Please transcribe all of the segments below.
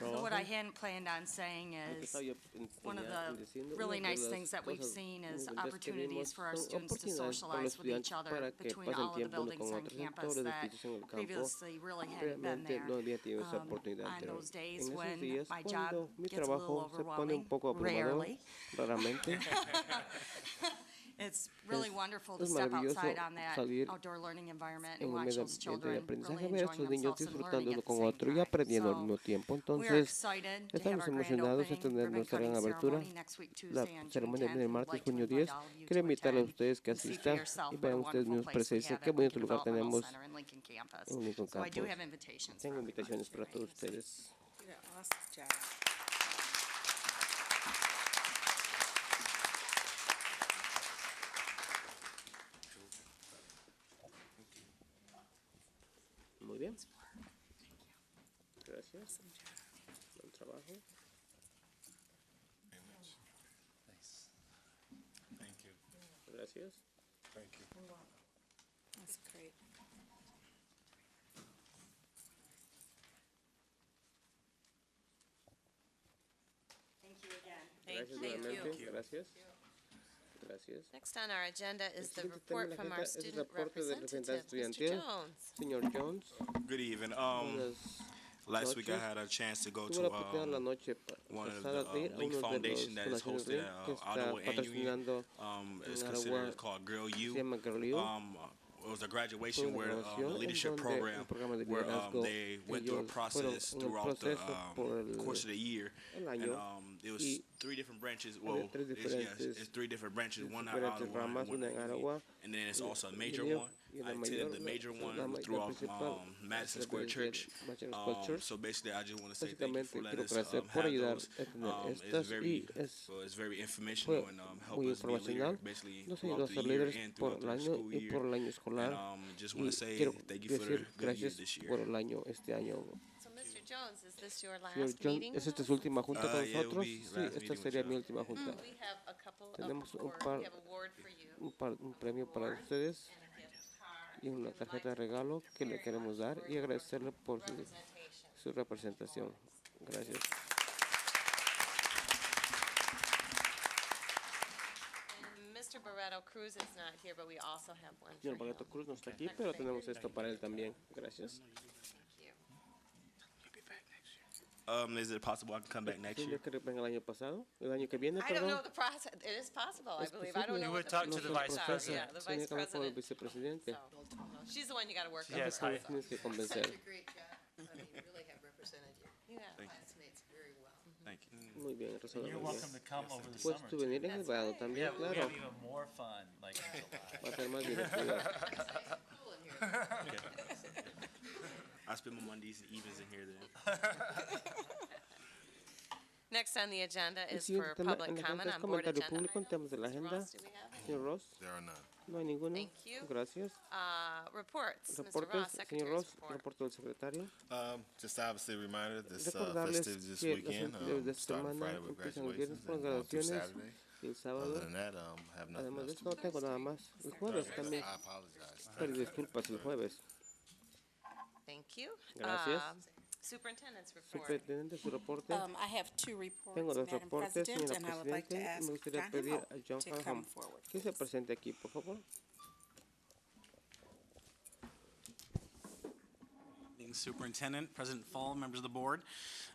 So what I hadn't planned on saying is, one of the really nice things that we've seen is opportunities for our students to socialize with each other between all of the buildings on campus that previously really hadn't been Realmente there. no había tenido esa Um, oportunidad on anterior. those days en esos when días, my job cuando mi gets a little trabajo se pone un poco overwhelming, abrumador, rarely. raramente, It's really Es- wonderful to es step maravilloso outside on that salir outdoor learning environment en and un watch medio those ambiente de children really aprendizaje, ver a esos enjoying niños themselves and learning disfrutándolo at the con same otro y aprendiendo al time. mismo So tiempo. we are Entonces, excited to have estamos our grand emocionados este de opening, tener ribbon nuestra gran cutting abertura, ceremony next week, la Tuesday on June ceremonia 10th. del We'd martes, like to junio invite all 10. of you Quiero to invitar a attend ustedes que and see for asistan yourself what y a vean ustedes wonderful mismos place we presencia. have Qué at bonito Lincoln lugar Developmental tenemos Center in Lincoln campus. en Lincoln So I do Campus. have invitations. for Tengo everyone invitaciones para tonight. todos ustedes. Did an awesome job. Muy bien. Gracias. Buen trabajo. Thank you, Gracias. thank you. That's great. Thank you again. Gracias Thank nuevamente. you. Gracias. Gracias. Next on our agenda is the siguiente tema en la report from our agenda es el student reporte del representative, representante Mr. estudiantil. Jones. Señor Jones, Good evening. Um, buenas last week I noches. had a chance to go Tuve la to, oportunidad en la um, noche pa- one of pasada the de ir um, a uno Link de los Foundation that is fundaciones hosted Link at que uh, está Ottawa and Union. patrocinando Um, it's en considered Ottawa, it's called Girl se U. llama Girl U. Um, uh, it was a graduation una where um, graduación the en leadership donde program un programa de where um, liderazgo they went through a ellos fueron process un throughout the proceso por um, el- course of the year, el and año um, it was y three different branches. Well, tres it's, yes, diferentes- it's three different branches. One out diferentes of Ottawa, ramas, and one una in en Union. Ottawa, and then it's y- also a y major Union, one. y la I mayor, attended the la- major la one ma- la throughout principal, um, Madison la Square del- Church. Madison Square Um, Church. so basically, I just want to say thank you Básicamente for quiero letting us agradecer um, por have ayudar those. a tener Um, estas it's y very, es well, it's very fue informational and um, help muy us be a leader, informacional. basically Nos ayudó a throughout the ser year líderes and por throughout el the año school y year. por el año And escolar. um, just Y want to say quiero thank you for the decir good year gracias this year. por el año, este año. So Mr. Jones, is this your Señor last John, meeting? ¿es esta with su us? última junta Uh, con yeah, it'll nosotros? be Sí, last esta meeting with sería mi y'all. última junta. We have a couple of Tenemos un awards, par- we have a award for you. Un, par- un premio para ustedes and a gift card, y una and we'd tarjeta de like to regalo que le very queremos much dar for y your agradecerle por su, Representation. su representación. Gracias. And Mr. Barreto Cruz is not here, but we also have one for Señor him. Bagato Cruz no está aquí, pero tenemos esto para él también. Gracias. Thank you. Um, is it possible I can come back next Sí, year? yo creo que venga el año pasado, el año que viene, I don't perdón. know the process, it is possible, I Es believe, posible. I don't know. You what would talk to procedures the vice are. president. Yeah, the Tiene vice que hablar con el president, vicepresidente. so, she's the one you gotta work She with. has so- high- Tienes que Such convencer. a great job. I mean, you really have represented your Yeah. classmates very well. Thank you. Muy bien, Rosa. You're welcome to come over the Puedes summer. tú too. venir en el That's verano right. Yeah, también, we claro. have even more fun, like in July. Va a ser más divertido. It's nice and cool in here. I spend my Mondays and evenings in here then. Next on the agenda El is for siguiente tema en public la agenda comment es on board comentario agenda público en items. temas de la Mr. agenda. Ross, do we have any? Señor Ross, There are none. no hay ninguno. Thank you. Gracias. Uh, reports, Mr. Ross, Reportes, señor Secretary's Ross, report. reporte del secretario. Um, just obviously a reminder this uh, Recordarles festivities this que las weekend, actividades de um, esta starting semana Friday with empiezan el viernes graduations con and going through graduaciones Saturday. y el Other sábado. than that, um, I have nothing Además de else esto, no to tengo nada más. El jueves report. también. I apologize. Pero disculpas, el jueves. Thank you. Gracias. Um, Superintendent's report. Superintendente, su reporte. Um, I have two Tengo reports, dos Madam reportes, President, señora and I would like to Presidente. ask Me gustaría John pedir a John Hamel to come Farham forward. que se please. presente aquí, por favor. Meeting Superintendent, President Fall, members of the board.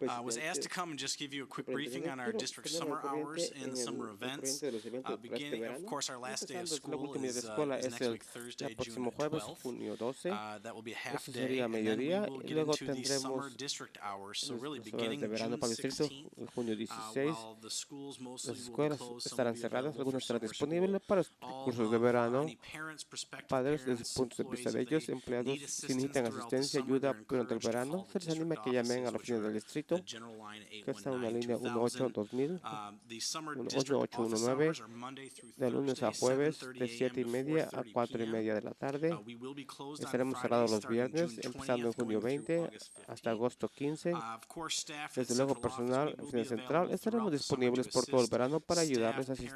Uh, was asked to come and just give you a quick briefing on our district summer hours and summer events. Uh, este beginning, of course, our last day of school is, uh, is next week, Thursday, June próximo jueves, junio 12. 12th. Uh, that will be a half Eso day, sería and then we mediodía, will y get luego into the summer tendremos district hours, so las really horas de beginning June verano para el distrito, 16th. el junio uh, 16. While the schools Las mostly will be escuelas closed, some will estarán be cerradas, available for algunas estarán summer school. disponibles para los All cursos de of, uh, verano. any parents, prospective Padres, desde parents, el punto de vista de employees, if ellos, they empleados, need si assistance necesitan throughout the asistencia, summer, ayuda they're durante el encouraged to verano, call se the les anima district que llamen a offices, la which oficina del are distrito, the general line que está en la línea 819-2000. 188-2000, Um, the summer 1-8-8-1-9, district office hours are Monday through de lunes a Thursday, jueves, 7:30 de 7 y a.m. to media a 4:30 4 y p.m. media de la tarde. Uh, we will be closed on Estaremos Friday, cerrados los starting June viernes, 20th, empezando en junio going through 20 August hasta 15th. agosto 15. Uh, of course, staff and Desde luego, central office, we personal, will be oficina available central, estaremos throughout the summer to disponibles por todo el assist verano para ayudarles a staff, asistir